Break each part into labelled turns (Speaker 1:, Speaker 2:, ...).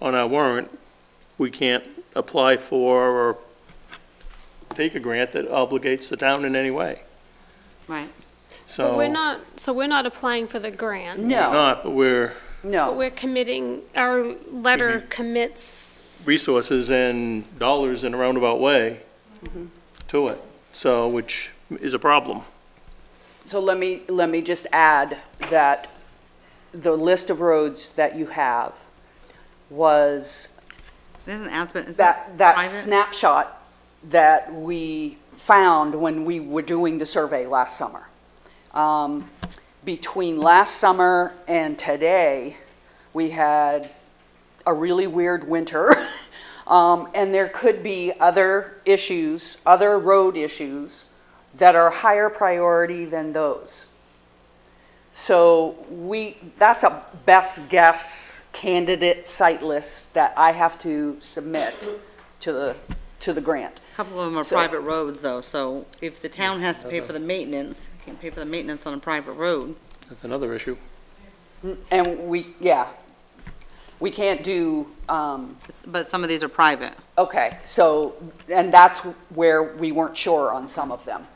Speaker 1: on our warrant, we can't apply for or take a grant that obligates the town in any way.
Speaker 2: Right.
Speaker 1: So.
Speaker 3: But we're not, so we're not applying for the grant.
Speaker 1: We're
Speaker 2: No,
Speaker 1: Not, but we're
Speaker 3: But
Speaker 2: no.
Speaker 3: we're committing, our letter commits,
Speaker 1: resources and dollars in a roundabout way
Speaker 4: Mm-hmm.
Speaker 1: to it, so, which is a problem.
Speaker 2: So let me, let me just add that the list of roads that you have was
Speaker 4: Isn't Aspen, is
Speaker 2: that,
Speaker 4: that
Speaker 2: that
Speaker 4: private?
Speaker 2: snapshot that we found when we were doing the survey last summer. Um, Between last summer and today, we had a really weird winter. Um, And there could be other issues, other road issues that are higher priority than those. So we, that's a best guess candidate site list that I have to submit to the, to the grant.
Speaker 4: A Couple of them are
Speaker 2: So-
Speaker 4: private roads though, so if the town has to pay for the maintenance, can't pay for the maintenance on a private road.
Speaker 1: That's another issue.
Speaker 2: And we, yeah, we can't do, um,
Speaker 4: It's- But some of these are private.
Speaker 2: okay, so, and that's where we weren't sure on some of them.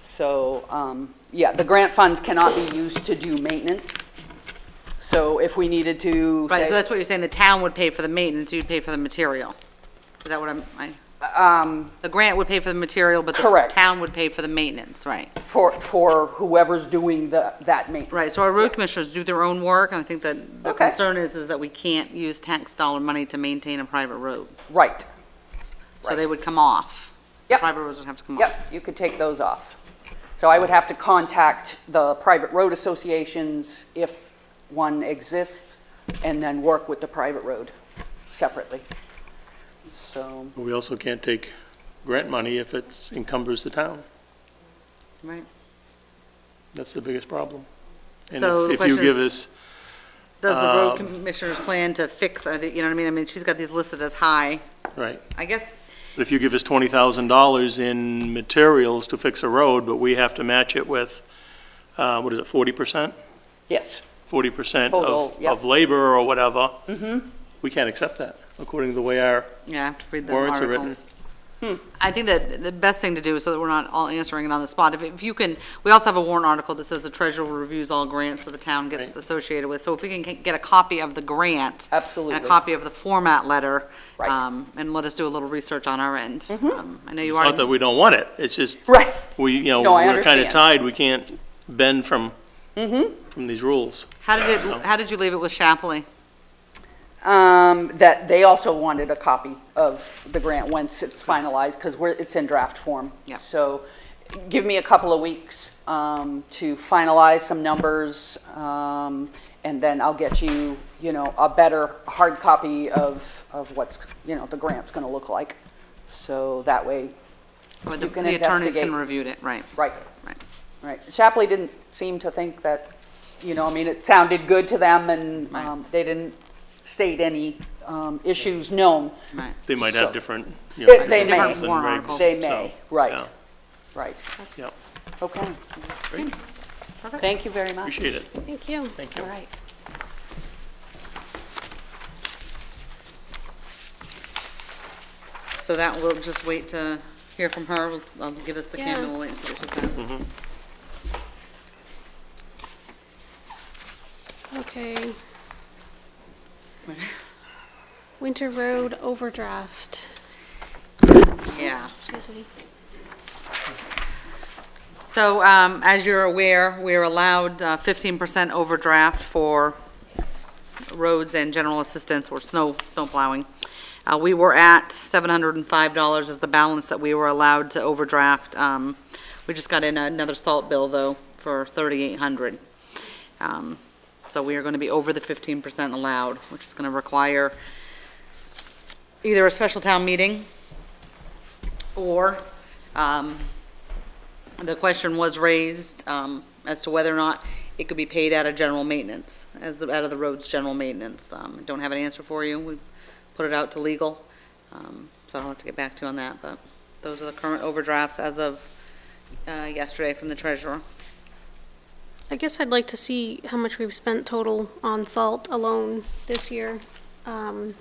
Speaker 2: So, um, yeah, the grant funds cannot be used to do maintenance. So if we needed to
Speaker 4: Right, so
Speaker 2: say,
Speaker 4: that's what you're saying, the town would pay for the maintenance, you'd pay for the material. Is that what I'm, I,
Speaker 2: um,
Speaker 4: the grant would pay for the material, but the
Speaker 2: Correct.
Speaker 4: town would pay for the maintenance, right?
Speaker 2: for, for whoever's doing the, that maintenance.
Speaker 4: Right, so our road commissioners do their own work, and I think that the
Speaker 2: Okay.
Speaker 4: concern is, is that we can't use tax dollar money to maintain a private road.
Speaker 2: Right.
Speaker 4: So they
Speaker 2: Right.
Speaker 4: would come off. The
Speaker 2: Yep.
Speaker 4: Private roads would have to come off.
Speaker 2: Yep, you could take those off. So I would have to contact the private road associations if one exists, and then work with the private road separately. So,
Speaker 1: But we also can't take grant money if it encumbers the town.
Speaker 4: Right.
Speaker 1: That's the biggest problem. And
Speaker 4: So
Speaker 1: if-
Speaker 4: the
Speaker 1: if you
Speaker 4: question
Speaker 1: give
Speaker 4: is-
Speaker 1: us,
Speaker 4: Does the road
Speaker 1: Um,
Speaker 4: commissioners plan to fix, are they, you know what I mean? I mean, she's got these listed as high.
Speaker 1: right,
Speaker 4: I guess,
Speaker 1: but if you give us twenty thousand dollars in materials to fix a road, but we have to match it with, uh, what is it, forty percent?
Speaker 2: yes,
Speaker 1: Forty percent
Speaker 2: Total, Mm-hmm.
Speaker 1: of,
Speaker 2: yeah.
Speaker 1: of labor or whatever. We can't accept that, according to the way our
Speaker 4: yeah, I have to read the
Speaker 1: warrants are
Speaker 4: article.
Speaker 1: written.
Speaker 4: I think that the best thing to do, so that we're not all answering it on the spot, if, if you can, we also have a warrant article that says the treasurer reviews all grants that the town gets
Speaker 1: Right.
Speaker 4: associated with. So if we can get- get a copy of the grant and a
Speaker 2: absolutely.
Speaker 4: copy of the format letter.
Speaker 2: Right.
Speaker 4: um, And let us do a little research on our end.
Speaker 1: Mm-hmm.
Speaker 4: Um, I know you
Speaker 1: Not that
Speaker 4: already,
Speaker 1: we don't want it, it's just,
Speaker 2: Right,
Speaker 1: we, you know,
Speaker 2: No, I
Speaker 1: we're kind of
Speaker 2: understand. Mm-hmm.
Speaker 1: tied, we can't bend from, from these rules.
Speaker 4: how did it, how did you leave it with Shapley?
Speaker 2: um, that they also wanted a copy of the grant once it's finalized, because we're, it's in draft form.
Speaker 4: Yep.
Speaker 2: So give me a couple of weeks, um, to finalize some numbers, um, and then I'll get you, you know, a better hard copy of, of what's, you know, the grant's gonna look like. So that way,
Speaker 4: Or the
Speaker 2: You can
Speaker 4: the attorneys
Speaker 2: investigate.
Speaker 4: can review it, right?
Speaker 2: right,
Speaker 4: Right.
Speaker 2: right. Shapley didn't seem to think that, you know, I mean, it sounded good to them and,
Speaker 4: Right.
Speaker 2: um, they didn't state any, um, issues known.
Speaker 4: Right.
Speaker 1: They might
Speaker 2: So-
Speaker 1: have different, you know.
Speaker 2: They- they may.
Speaker 1: different
Speaker 4: Different
Speaker 1: regs,
Speaker 4: warrants.
Speaker 2: They may,
Speaker 1: so,
Speaker 2: right,
Speaker 1: yeah,
Speaker 2: right.
Speaker 1: Yep,
Speaker 2: Okay,
Speaker 1: great,
Speaker 2: thank you very much.
Speaker 1: appreciate it,
Speaker 3: thank you.
Speaker 1: thank you.
Speaker 3: All right.
Speaker 4: So that, we'll just wait to hear from her. We'll- I'll give this to Kim
Speaker 3: Yeah.
Speaker 4: and we'll wait and see what she says.
Speaker 3: Okay. Winter Road overdraft,
Speaker 4: Yeah.
Speaker 3: excuse me.
Speaker 4: So, um, as you're aware, we're allowed uh, 15% overdraft for roads and general assistance or snow, snow plowing. Uh, we were at $705 is the balance that we were allowed to overdraft. Um, we just got in another salt bill though for 3,800. Um, so we are going to be over the 15% allowed, which is going to require either a special town meeting or, um, the question was raised um, as to whether or not it could be paid out of general maintenance, as the, out of the roads general maintenance. Um, I Don't have an answer for you. We put it out to legal, um, so I'll have to get back to you on that, but those are the current overdrafts as of uh, yesterday from the treasurer.
Speaker 3: I guess I'd like to see how much we've spent total on salt alone this year. Um,